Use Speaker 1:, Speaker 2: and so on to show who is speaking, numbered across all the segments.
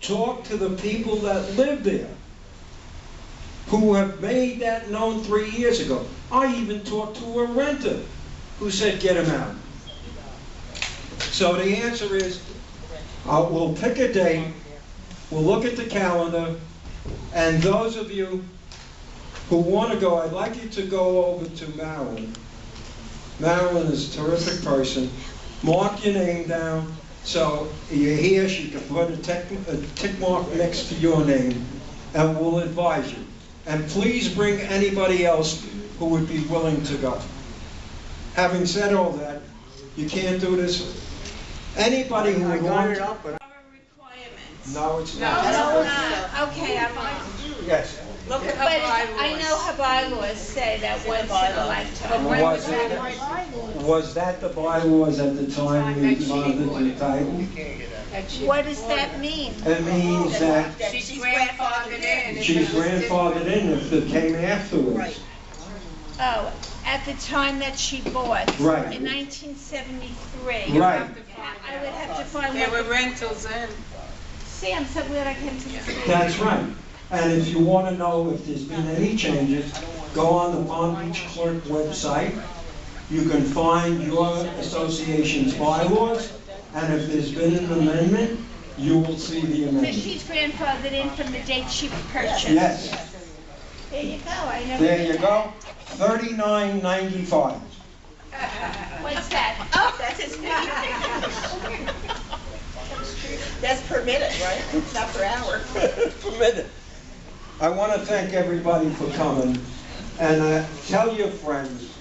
Speaker 1: talk to the people that live there, who have made that known three years ago. I even talked to a renter who said, get him out. So the answer is, uh, we'll pick a date, we'll look at the calendar, and those of you who want to go, I'd like you to go over to Marilyn. Marilyn is a terrific person. Mark your name down, so you're here, she can put a tick, a tick mark next to your name, and we'll advise you. And please bring anybody else who would be willing to go. Having said all that, you can't do this. Anybody who
Speaker 2: I
Speaker 1: would
Speaker 2: got
Speaker 1: want
Speaker 2: it
Speaker 1: to...
Speaker 2: up, but,
Speaker 3: Our requirements.
Speaker 1: No, it's
Speaker 3: No,
Speaker 1: not.
Speaker 3: it's not. Okay, I'm on.
Speaker 2: yes,
Speaker 3: Look at
Speaker 4: But
Speaker 3: her
Speaker 4: I know
Speaker 3: bylaws.
Speaker 4: her bylaws say that once in a lifetime.
Speaker 1: But when was Was that? Was that the bylaws at the time we bothered the title?
Speaker 4: What does that mean?
Speaker 1: It means that
Speaker 3: She's grandfathered in.
Speaker 1: she was grandfathered in if it came afterwards.
Speaker 4: Oh, at the time that she bought.
Speaker 1: Right.
Speaker 4: In 1973.
Speaker 1: Right.
Speaker 4: I would have to find
Speaker 3: There
Speaker 4: what,
Speaker 3: were rentals in.
Speaker 4: see, I'm so glad I came to this meeting.
Speaker 1: That's right. And if you want to know if there's been any changes, go on the Palm Beach Clerk website. You can find your association's bylaws, and if there's been an amendment, you will see the
Speaker 4: So
Speaker 1: amendment.
Speaker 4: she's grandfathered in from the date she purchased.
Speaker 1: Yes,
Speaker 4: There you go, I never.
Speaker 1: there
Speaker 4: knew
Speaker 1: you
Speaker 4: that.
Speaker 1: go. Thirty-nine ninety-five.
Speaker 4: What's that? Oh,
Speaker 5: That's his fee. That's per minute, right? It's not per hour.
Speaker 1: permitted. I want to thank everybody for coming, and uh, tell your friends,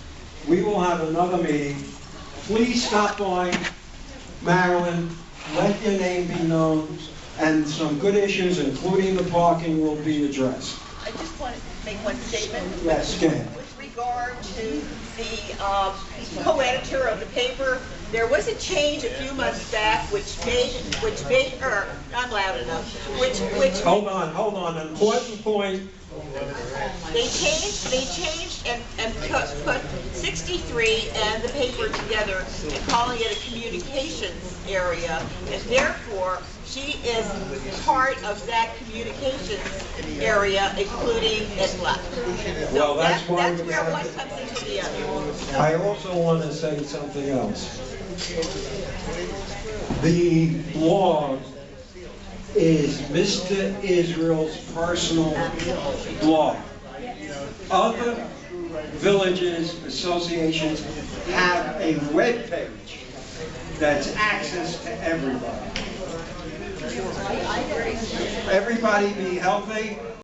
Speaker 1: we will have another meeting. Please stop by Marilyn, let your name be known, and some good issues, including the parking, will be addressed.
Speaker 5: I just want to make one statement
Speaker 1: Yes, go ahead.
Speaker 5: with regard to the um, co-editor of the paper. There was a change a few months back which made, which made her, not loud enough, which, which
Speaker 1: Hold on, hold on, an important point,
Speaker 5: They changed, they changed and, and put, put sixty-three and the paper together and calling it a communications area. And therefore, she is part of that communications area, including ISLA.
Speaker 1: Well,
Speaker 5: So
Speaker 1: that's
Speaker 5: that-
Speaker 1: why
Speaker 5: That's
Speaker 1: we
Speaker 5: where
Speaker 1: have-
Speaker 5: one comes into the other.
Speaker 1: I also want to say something else. The blog is Mr. Israel's personal blog. Other villages, associations have a web page that's access to everybody. Everybody be healthy.